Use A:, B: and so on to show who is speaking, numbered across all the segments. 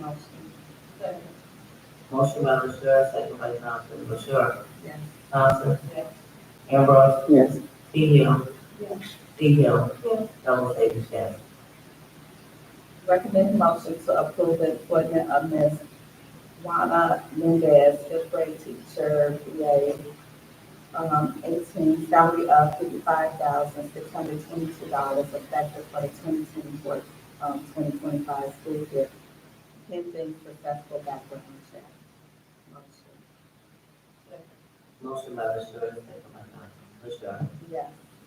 A: Motion.
B: Second.
C: Motion by Michelle, second by Johnson. Michelle.
A: Yes.
C: Johnson.
B: Yes.
C: Uh, Ambrose.
D: yes,
C: Keyhill.
B: Yes.
C: Keyhill.
B: Yes.
C: Fellows, Davis, yes.
A: Recommend motion to approve the appointment of Ms. Juana Mendez, fifth grade teacher, PA, um, eighteen, salary of fifty-five thousand, six hundred twenty-two dollars, effective for the twenty twenty-four, um, twenty twenty-five school year, pending successful background check. Motion.
C: Motion by Michelle, second by Johnson. Michelle.
A: Yes.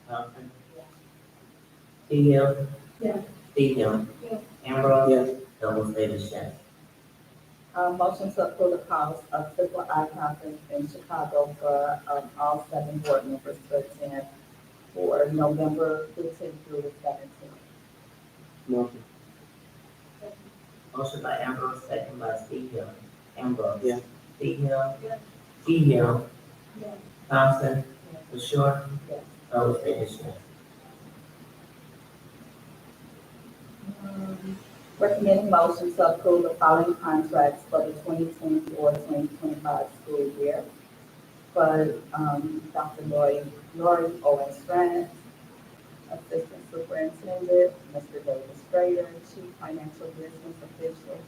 C: Johnson.
A: Yes.
C: Keyhill.
B: Yes.
C: Keyhill.
B: Yes.
C: Ambrose.
D: yes,
C: Fellows, Davis, yes.
A: Uh, motion to approve the cost of triple I conference in Chicago for, um, all seven board members to attend for November fifteenth through the seventeenth.
D: motion,
C: Motion by Ambrose, second by Keyhill. Ambrose.
D: Yes.
C: Keyhill.
B: Yes.
C: Keyhill.
B: Yes.
C: Thompson. Michelle.
A: Yes.
C: Fellows, Davis, yes.
A: Recommend Um, motion to approve the following contracts for the 2024-2025 school year. For, um, Dr. Lori, Lori Owen Strand, Assistant Superintendent, Mr. David Strayer, Chief Financial Business Official,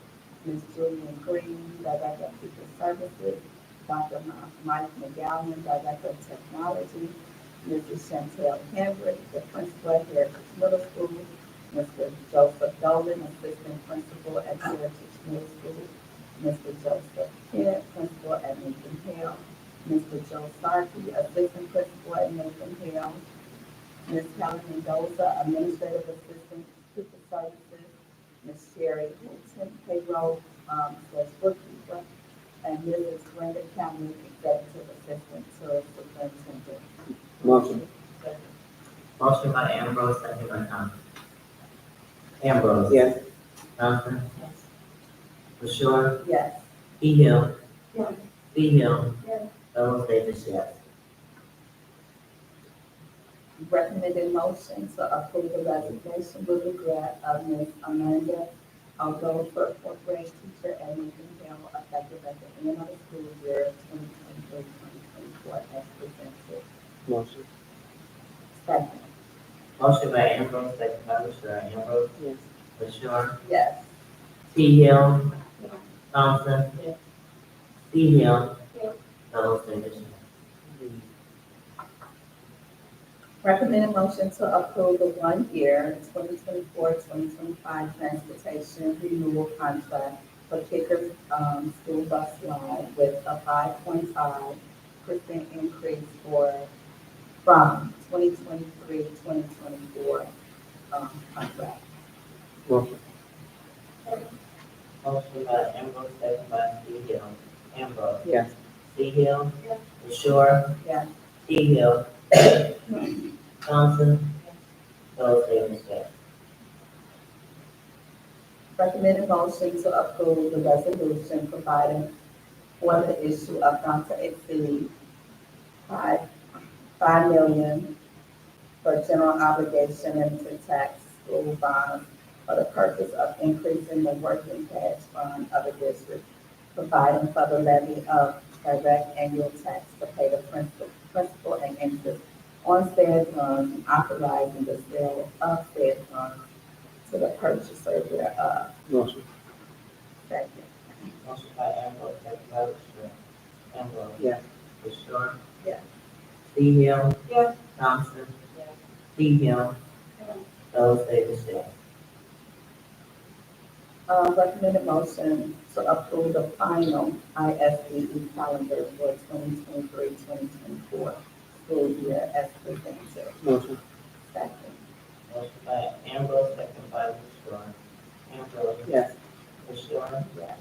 A: Ms. Julian Green, Director of People Services, Dr. Ma- Mike McGowan, Director of Technology, Mrs. Chantel Henry, the Principal at Heritage Middle School, Mr. Joseph Dolan, Assistant Principal at Heritage Middle School, Mr. Joseph Kent, Principal at Lincoln Hill, Mr. Joe Sarkey, Assistant Principal at Lincoln Hill, Ms. Helen Mendoza, Administrative Assistant People Services, Ms. Sherry Hinton, Payroll, um, slash bookkeeper, and Mrs. Brenda Cameron, Executive Assistant to Superintendent.
D: motion,
C: Motion by Ambrose, second by Thompson. Ambrose.
D: yes,
C: Johnson. Bashir.
A: Yes.
C: Keyhill.
B: Yes.
C: Keyhill.
B: Yes.
C: Fellows, Davis, yes.
A: recommended motion to approve the resignation with regret of Ms. Amanda Algo for fourth grade teacher at Lincoln Hill effective at the end of the school year 2023-2024 as presented.
D: motion,
A: Second,
C: Motion by Ambrose, second by Bashir. uh, Ambrose.
D: yes,
C: Bashir.
A: yes.
C: Keyhill.
B: Yes.
C: Thompson.
A: Yes.
C: Keyhill.
B: Yes.
C: Fellows, Davis, yes.
A: Recommended motion to approve the one-year 2024-2025 transportation renewal contract for Kicker um, School Bus Line with a 5.5% increase for, from 2023-2024 um, contract.
D: motion,
C: Motion by Ambrose, second by Keyhill. Ambrose.
D: yes,
C: Keyhill.
B: Yes.
C: Bashir.
A: Yes.
C: Keyhill. Thompson. Fellows, Davis, yes.
A: Recommended motion to approve the resolution providing for the issue of not to exceed five, five million for general obligation and to tax school bonds for the purpose of increasing the working cash fund of the district, providing for the levy of direct annual tax to pay the principal, principal and interest on said funds, and authorizing the sale of said funds to the purchaser thereof.
D: motion,
A: Second.
C: Motion by Ambrose, second by Bashir. Ambrose.
D: yes,
C: Bashir.
A: Yes.
C: Keyhill.
B: Yes.
C: Thompson.
A: Yes.
C: Keyhill.
B: Yes.
C: Fellows, Davis, yes.
A: Uh, recommended motion to approve the final ISBE E calendar for 2023-2024 school year as presented.
D: motion,
A: Second.
C: Motion by Ambrose, second by Bashir. Ambrose.
D: yes,
C: Bashir.
A: Yes.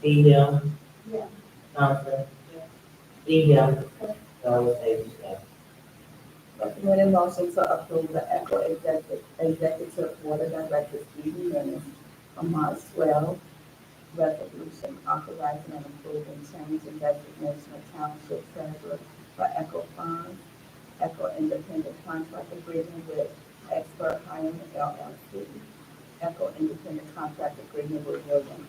C: Keyhill.
B: Yes.
C: Thompson.
A: Yes.
C: Keyhill.
B: Yes.
C: Fellows, Davis, yes.
A: Recommended motion to approve uh, the Echo Executive, Executive Board of Directors meeting minutes from March twelve. Resolution authorizing and approving change in designation of township treasurer for Echo Fund, Echo Independent Contract Agreement with Expert Hiring LLC, Echo Independent Contract Agreement with William